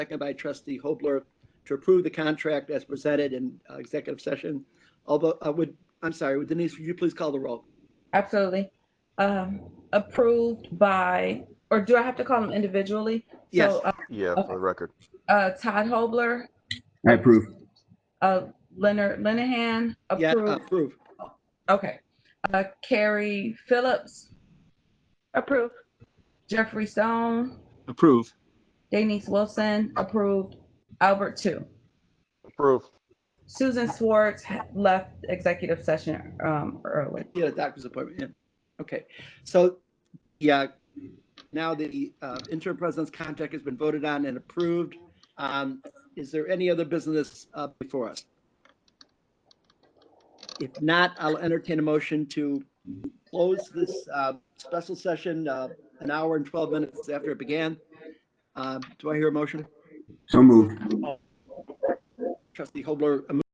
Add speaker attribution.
Speaker 1: second by trustee Hobler, to approve the contract as presented in uh, executive session. Although, I would, I'm sorry, Denise, would you please call the roll?
Speaker 2: Absolutely. Um, approved by, or do I have to call them individually?
Speaker 1: Yes.
Speaker 2: So, uh,
Speaker 3: Yeah,
Speaker 2: Okay.
Speaker 3: for the record.
Speaker 2: uh, Todd Hobler,
Speaker 4: I approve.
Speaker 2: uh, Leonard Linehan,
Speaker 1: Yeah, uh,
Speaker 2: approved.
Speaker 1: approve.
Speaker 2: Okay. Uh, Carrie Phillips,
Speaker 5: Approve.
Speaker 2: Jeffrey Stone,
Speaker 6: Approve.
Speaker 2: Denise Wilson, approved. Albert two.
Speaker 3: Approve.
Speaker 2: Susan Swartz ha- left executive session, um, early.
Speaker 1: Get a doctor's appointment, yeah. Okay, so, yeah, now the uh, interim president's contract has been voted on and approved. Um, Is there any other business uh, before us? If not, I'll entertain a motion to close this uh, special session, uh, an hour and 12 minutes after it began. Um, Uh, Do I hear a motion?
Speaker 4: So moved.
Speaker 1: Trustee Hobler, a